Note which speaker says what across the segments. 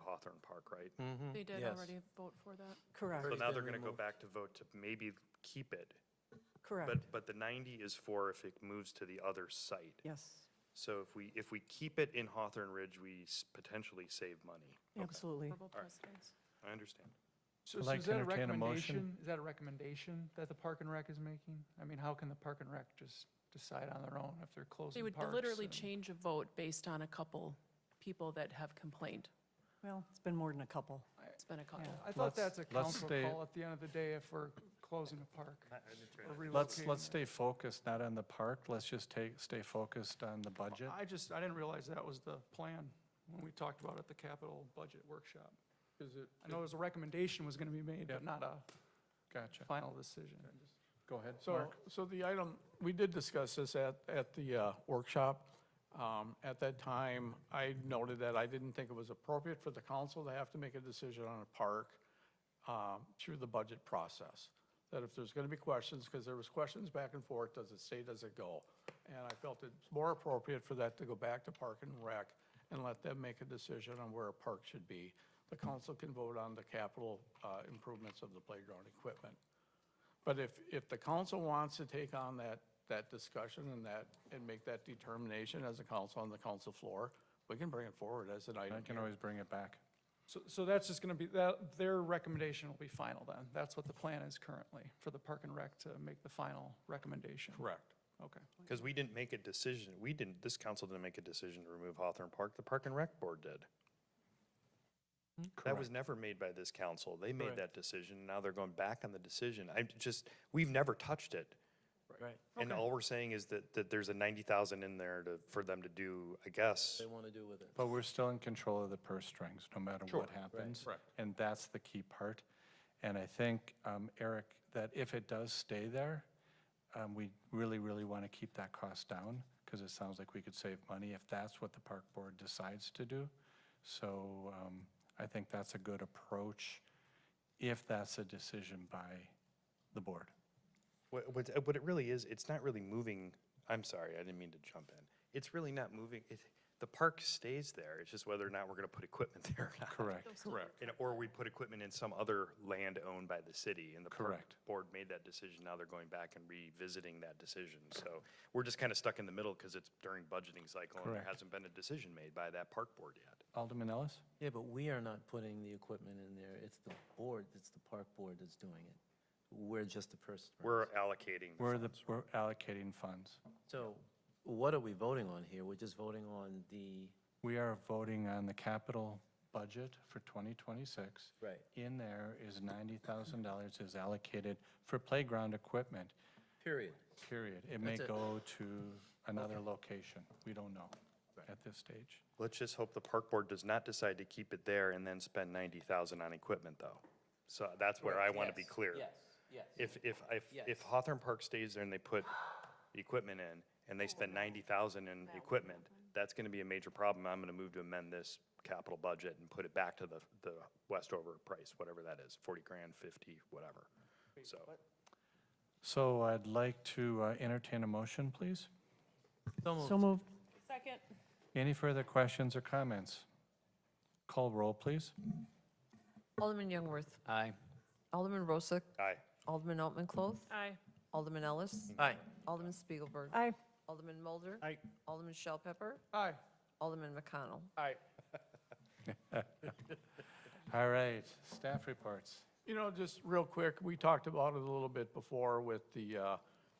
Speaker 1: Hawthorne Park, right?
Speaker 2: They
Speaker 3: Mm-hmm.
Speaker 2: did
Speaker 4: Yes.
Speaker 2: already vote for that.
Speaker 1: So
Speaker 5: Correct,
Speaker 1: now they're going to go back to vote to maybe keep it. But,
Speaker 5: correct.
Speaker 1: but the 90 is for if it moves to the other site.
Speaker 5: Yes,
Speaker 1: So if we, if we keep it in Hawthorne Ridge, we s- potentially save money.
Speaker 5: absolutely.
Speaker 2: Verbal precedence.
Speaker 1: I understand.
Speaker 3: So
Speaker 6: I'd
Speaker 3: so
Speaker 6: like
Speaker 3: is
Speaker 6: to
Speaker 3: that a
Speaker 6: entertain a motion.
Speaker 3: recommendation? Is that a recommendation that the Park and Rec is making? I mean, how can the Park and Rec just decide on their own if they're
Speaker 2: They
Speaker 3: closing
Speaker 2: would
Speaker 3: parks?
Speaker 2: literally
Speaker 3: and-
Speaker 2: change a vote based on a couple people that have complained.
Speaker 5: Well, it's been more than a couple.
Speaker 2: It's been a couple.
Speaker 3: Yeah, I thought
Speaker 6: Let's-
Speaker 3: that's a
Speaker 6: let's
Speaker 3: council
Speaker 6: stay-
Speaker 3: call at the end of the day if we're closing a park or
Speaker 6: Let's, let's
Speaker 3: relocating.
Speaker 6: stay focused, not on the park. Let's just take, stay focused on the budget.
Speaker 3: I just, I didn't realize that was the plan when we talked about it at the capital budget workshop.
Speaker 6: Is it?
Speaker 3: I know it was a recommendation was going to be made, but
Speaker 6: Yep.
Speaker 3: not a
Speaker 6: Gotcha.
Speaker 3: final decision.
Speaker 6: Go ahead,
Speaker 7: So,
Speaker 6: Mark.
Speaker 7: so the item, we did discuss this at, at the uh, workshop. Um, At that time, I noted that I didn't think it was appropriate for the council to have to make a decision on a park um, through the budget process. That if there's going to be questions, because there was questions back and forth, does it stay, does it go? And I felt it's more appropriate for that to go back to Park and Rec and let them make a decision on where a park should be. The council can vote on the capital uh, improvements of the playground equipment. But if, if the council wants to take on that, that discussion and that, and make that determination as a council on the council floor, we can bring it forward as an
Speaker 6: I
Speaker 7: item
Speaker 6: can
Speaker 7: here.
Speaker 6: always bring it back.
Speaker 3: So, so that's just going to be, that, their recommendation will be final then? That's what the plan is currently, for the Park and Rec to make the final recommendation?
Speaker 7: Correct.
Speaker 3: Okay.
Speaker 1: Because we didn't make a decision, we didn't, this council didn't make a decision to remove Hawthorne Park, the Park and Rec Board did. That was never made by this council. They made that decision, now they're going back on the decision. I'm just, we've never touched it.
Speaker 4: Right.
Speaker 1: And all we're saying is that, that there's a 90,000 in there to, for them to do, I guess.
Speaker 4: They want to do with it.
Speaker 6: But we're still in control of the purse strings, no matter what happens. And that's the key part. And I think, um, Eric, that if it does stay there, um, we really, really want to keep that cost down because it sounds like we could save money if that's what the park board decides to do. So um, I think that's a good approach if that's a decision by the board.
Speaker 1: What, what, uh, what it really is, it's not really moving, I'm sorry, I didn't mean to jump in. It's really not moving, it, the park stays there, it's just whether or not we're gonna put equipment there or not.
Speaker 6: Correct.
Speaker 1: Correct. And, or we put equipment in some other land owned by the city, and the park
Speaker 6: Correct.
Speaker 1: board made that decision, now they're going back and revisiting that decision. So we're just kinda stuck in the middle, cause it's during budgeting cycle, and there
Speaker 6: Correct.
Speaker 1: hasn't been a decision made by that park board yet.
Speaker 6: Alderman Ellis?
Speaker 4: Yeah, but we are not putting the equipment in there. It's the board, it's the park board that's doing it. We're just the person.
Speaker 1: We're allocating. the
Speaker 6: We're the, we're allocating funds.
Speaker 4: So what are we voting on here? We're just voting on the,
Speaker 6: We are voting on the capital budget for 2026.
Speaker 4: Right.
Speaker 6: In there is $90,000 is allocated for playground equipment,
Speaker 4: period.
Speaker 6: period. It may
Speaker 4: That's it.
Speaker 6: go to another location. We don't know at this stage.
Speaker 1: Let's just hope the park board does not decide to keep it there and then spend ninety thousand on equipment, though. So that's where I want to be clear.
Speaker 4: yes.
Speaker 1: If, if, if, if
Speaker 4: Yes.
Speaker 1: Hawthorne Park stays there and they put equipment in, and they spend ninety thousand in equipment, that's going to be a major problem. I'm going to move to amend this capital budget and put it back to the, the Westover price, whatever that is, forty grand, fifty, whatever. So,
Speaker 6: So I'd like to uh, entertain a motion, please.
Speaker 5: So moved.
Speaker 2: Second.
Speaker 6: Any further questions or comments? Call roll, please.
Speaker 8: Alderman Youngworth.
Speaker 4: Aye.
Speaker 8: Alderman Rosak.
Speaker 1: aye.
Speaker 8: Alderman Altman Cloth.
Speaker 2: Aye.
Speaker 8: Alderman Ellis.
Speaker 4: Aye.
Speaker 8: Alderman Spiegelberg.
Speaker 5: Aye.
Speaker 8: Alderman Mulder.
Speaker 1: Aye.
Speaker 8: Alderman Shell Pepper.
Speaker 3: Aye.
Speaker 8: Alderman McConnell.
Speaker 7: I,
Speaker 6: All right, staff reports.
Speaker 7: you know, just real quick, we talked about it a little bit before with the uh,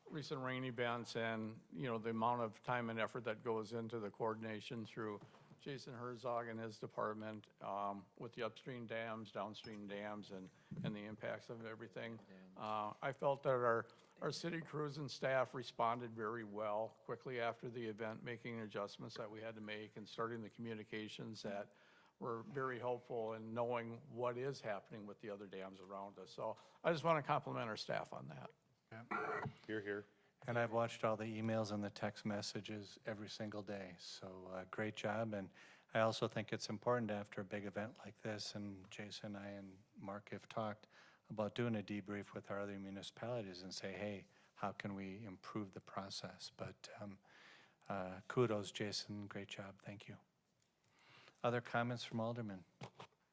Speaker 7: recent rain events and, you know, the amount of time and effort that goes into the coordination through Jason Herzog and his department um, with the upstream dams, downstream dams, and, and the impacts of everything. Uh, I felt that our, our city crews and staff responded very well quickly after the event, making adjustments that we had to make and starting the communications that were very helpful in knowing what is happening with the other dams around us. So I just want to compliment our staff on that.
Speaker 1: You're here.
Speaker 6: And I've watched all the emails and the text messages every single day, so uh, great job. And I also think it's important after a big event like this, and Jason, I, and Mark have talked about doing a debrief with our other municipalities and say, hey, how can we improve the process? But um, uh, kudos, Jason, great job, thank you. Other comments from aldermen?